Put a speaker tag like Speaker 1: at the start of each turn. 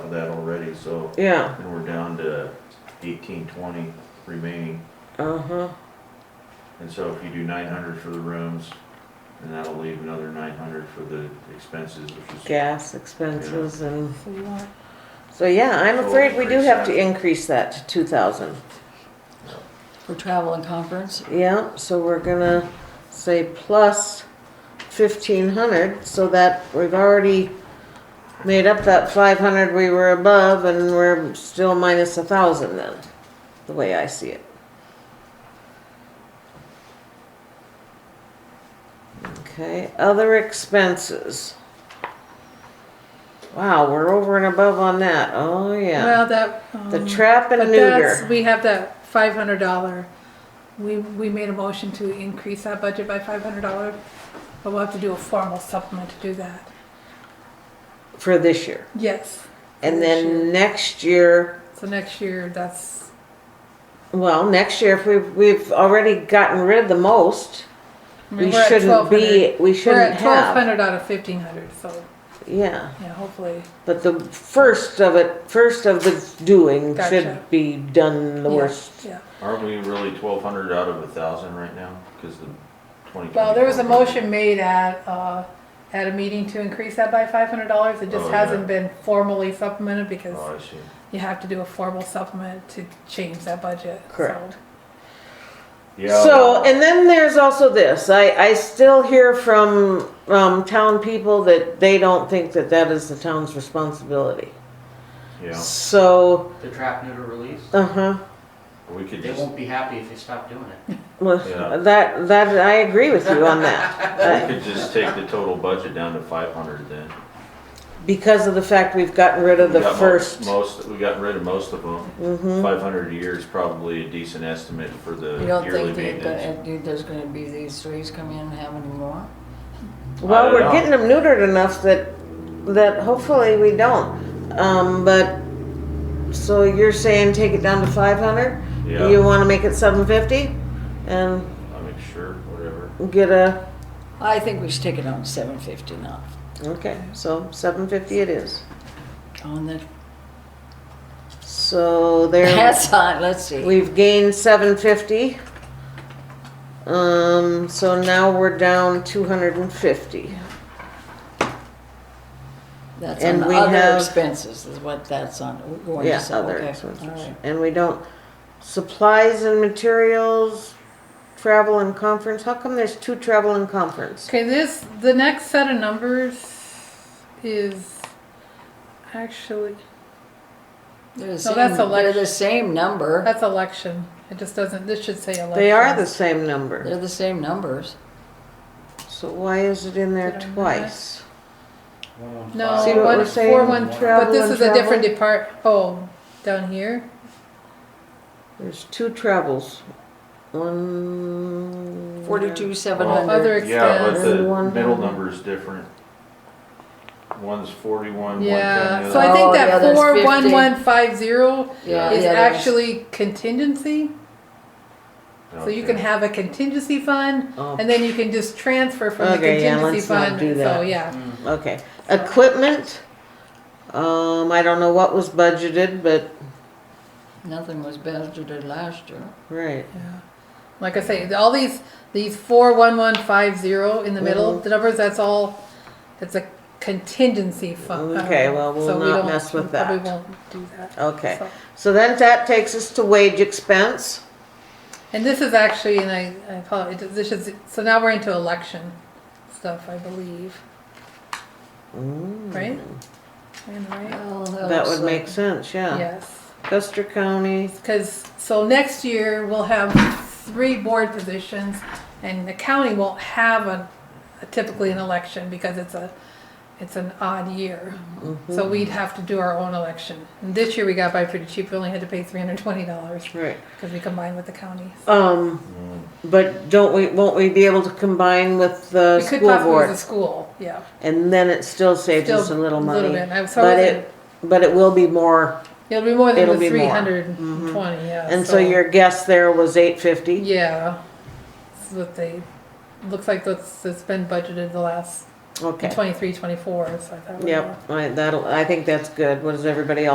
Speaker 1: of that already, so,
Speaker 2: yeah,
Speaker 1: and we're down to eighteen, twenty remaining.
Speaker 2: uh-huh,
Speaker 1: And so if you do nine hundred for the rooms, then that'll leave another nine hundred for the expenses, which is,
Speaker 2: gas expenses and,
Speaker 3: So you want,
Speaker 2: so yeah, I'm
Speaker 1: We'll
Speaker 2: afraid we do
Speaker 1: increase
Speaker 2: have to
Speaker 1: that.
Speaker 2: increase that to two thousand.
Speaker 3: for travel and conference,
Speaker 2: Yeah, so we're gonna say plus fifteen hundred, so that we've already made up that five hundred we were above, and we're still minus a thousand then, the way I see it. Okay, other expenses. Wow, we're over and above on that, oh yeah.
Speaker 4: Well, that.
Speaker 2: The
Speaker 4: um,
Speaker 2: trap and
Speaker 4: But that's,
Speaker 2: neuter,
Speaker 4: we have that five hundred dollar, we, we made a motion to increase that budget by five hundred dollars, but we'll have to do a formal supplement to do that.
Speaker 2: for this year,
Speaker 4: Yes,
Speaker 2: and
Speaker 4: This year.
Speaker 2: then next year.
Speaker 4: so next year, that's,
Speaker 2: Well, next year, if we've, we've already gotten rid of the most,
Speaker 4: I mean,
Speaker 2: we
Speaker 4: we're at
Speaker 2: shouldn't be,
Speaker 4: 1,200.
Speaker 2: we
Speaker 4: We're
Speaker 2: shouldn't
Speaker 4: at twelve
Speaker 2: have.
Speaker 4: hundred out of fifteen hundred, so,
Speaker 2: Yeah,
Speaker 4: yeah, hopefully,
Speaker 2: but the first of it, first of the doing
Speaker 4: Gotcha.
Speaker 2: should be done the
Speaker 4: Yeah.
Speaker 2: worst.
Speaker 4: yeah.
Speaker 1: aren't we really twelve hundred out of a thousand right now? Cause the twenty.
Speaker 4: Well, there was a motion made at, uh, at a meeting to increase that by five hundred dollars, it
Speaker 1: Oh,
Speaker 4: just
Speaker 1: yeah.
Speaker 4: hasn't been formally supplemented because
Speaker 1: Oh, I see.
Speaker 4: you have to do a formal supplement to change that budget. so.
Speaker 2: Correct.
Speaker 1: Yeah.
Speaker 2: So, and then there's also this, I, I still hear from, um, town people that they don't think that that is the town's responsibility.
Speaker 1: Yeah,
Speaker 2: So,
Speaker 5: the trap neuter release.
Speaker 2: uh-huh,
Speaker 1: we could
Speaker 5: They
Speaker 1: just.
Speaker 5: won't be happy if you stop doing it.
Speaker 1: Yeah.
Speaker 2: well, that, that, I agree with you on that. I-
Speaker 4: Uh,
Speaker 1: We could just take the total budget down to five hundred then.
Speaker 2: Because of the fact we've gotten rid of
Speaker 1: We
Speaker 2: the
Speaker 1: got mo-
Speaker 2: first.
Speaker 1: Most, we got rid of most of them.
Speaker 4: Mm-hmm.
Speaker 1: Five hundred a year is probably a decent estimate for the
Speaker 3: you don't
Speaker 1: yearly
Speaker 3: think that-
Speaker 1: maintenance.
Speaker 3: that, that there's gonna be these threes come in and have any more?
Speaker 1: I
Speaker 2: Well,
Speaker 1: don't
Speaker 2: we're
Speaker 1: know.
Speaker 2: getting them neutered enough that that hopefully we don't. Um, but so you're saying take it down to 500?
Speaker 1: Yeah.
Speaker 2: You want to make it 750 and
Speaker 1: I mean, sure, whatever.
Speaker 2: get a
Speaker 3: I think we should take it on seven fifty now,
Speaker 2: okay. So 750 it is.
Speaker 3: on the,
Speaker 2: So there
Speaker 3: that's on, let's see.
Speaker 2: we've gained 750. Um, so now we're down 250.
Speaker 3: That's
Speaker 2: and
Speaker 3: on the
Speaker 2: we
Speaker 3: other
Speaker 2: have-
Speaker 3: expenses is what that's on, We're going to,
Speaker 2: Yeah,
Speaker 3: sell.
Speaker 2: other
Speaker 3: okay,
Speaker 2: expenses.
Speaker 3: all right.
Speaker 2: And we don't, supplies and materials, travel and conference, how come there's two travel and conference?
Speaker 4: Okay, this, the next set of numbers is actually,
Speaker 3: They're the
Speaker 4: No, that's
Speaker 3: same- They're
Speaker 4: election.
Speaker 3: the same number,
Speaker 4: that's election. It just doesn't, this should say election.
Speaker 2: They are the same number,
Speaker 3: they're the same numbers.
Speaker 2: so why is it in there
Speaker 4: Did I miss?
Speaker 2: twice?
Speaker 4: No,
Speaker 2: See what
Speaker 4: one-
Speaker 2: we're saying?
Speaker 4: four, one, but
Speaker 2: Travel
Speaker 4: this
Speaker 2: and
Speaker 4: is a different
Speaker 2: travel?
Speaker 4: depart, oh, down here?
Speaker 2: There's two travels, one.
Speaker 3: Forty-two, seven
Speaker 4: Other
Speaker 3: hundred,
Speaker 1: Yeah, but
Speaker 4: expense.
Speaker 1: the
Speaker 2: One
Speaker 1: middle
Speaker 2: hundred.
Speaker 1: number's different. One's forty-one, one ten.
Speaker 4: Yeah,
Speaker 1: the
Speaker 4: so I
Speaker 1: other-
Speaker 3: Oh,
Speaker 4: think
Speaker 3: yeah,
Speaker 4: that
Speaker 3: there's
Speaker 4: four,
Speaker 3: 50.
Speaker 4: one, one, five, zero
Speaker 3: yeah.
Speaker 4: is
Speaker 3: yeah, there's-
Speaker 4: actually contingency. So you can
Speaker 1: Okay.
Speaker 4: have a contingency fund
Speaker 2: Oh,
Speaker 4: and then you can just transfer from the
Speaker 2: Okay, yeah,
Speaker 4: contingency
Speaker 2: let's not
Speaker 4: fund.
Speaker 2: do
Speaker 4: So,
Speaker 2: that.
Speaker 4: yeah.
Speaker 5: Hmm.
Speaker 2: Okay, equipment, um, I don't know what was budgeted, but,
Speaker 3: Nothing was budgeted last year.
Speaker 2: right,
Speaker 4: Yeah. Like I say, all these these four one one five zero in the middle,
Speaker 2: Mhm.
Speaker 4: the numbers that's all that's a contingency fund.
Speaker 2: Okay, well, we'll
Speaker 4: so we
Speaker 2: not
Speaker 4: don't-
Speaker 2: mess with
Speaker 4: we probably
Speaker 2: that.
Speaker 4: won't do that.
Speaker 2: okay.
Speaker 4: So-
Speaker 2: So then that takes us to wage expense,
Speaker 4: And this is actually, and I, I apologize. This is so now we're into election stuff, I believe. Right?
Speaker 2: Mm-hmm.
Speaker 4: Am I right?
Speaker 3: Well,
Speaker 2: that
Speaker 3: looks
Speaker 2: would
Speaker 3: like-
Speaker 2: make sense,
Speaker 4: Yes.
Speaker 2: Custer County,
Speaker 4: Because, so next year, we'll have three board positions, and the county won't have a, typically an election, because it's a, it's an odd year. So
Speaker 2: Mm-hmm.
Speaker 4: we'd have to do our own election. And this year, we got by pretty cheap, we only had to pay three hundred and twenty dollars,
Speaker 2: right.
Speaker 4: because we combined with the county.
Speaker 2: Um, but don't we, won't we be able to combine with the
Speaker 4: We could
Speaker 2: school
Speaker 4: possibly use the
Speaker 2: board?
Speaker 4: school, yeah.
Speaker 2: And then it still saves us a
Speaker 4: Still
Speaker 2: little
Speaker 4: little
Speaker 2: money.
Speaker 4: bit. I'm sorry
Speaker 2: But
Speaker 4: that-
Speaker 2: it, but it will be more,
Speaker 4: It'll be more than
Speaker 2: It'll be
Speaker 4: the
Speaker 2: more. Mm-hmm.
Speaker 4: three hundred and twenty, yeah.
Speaker 2: and so your guess there was eight fifty?
Speaker 4: Yeah, that's what they, looks like that's, that's been budgeted the last
Speaker 2: Okay,
Speaker 4: twenty-three, twenty-four, so I thought. we were-
Speaker 2: yep, I, that'll, I think that's good. What does everybody else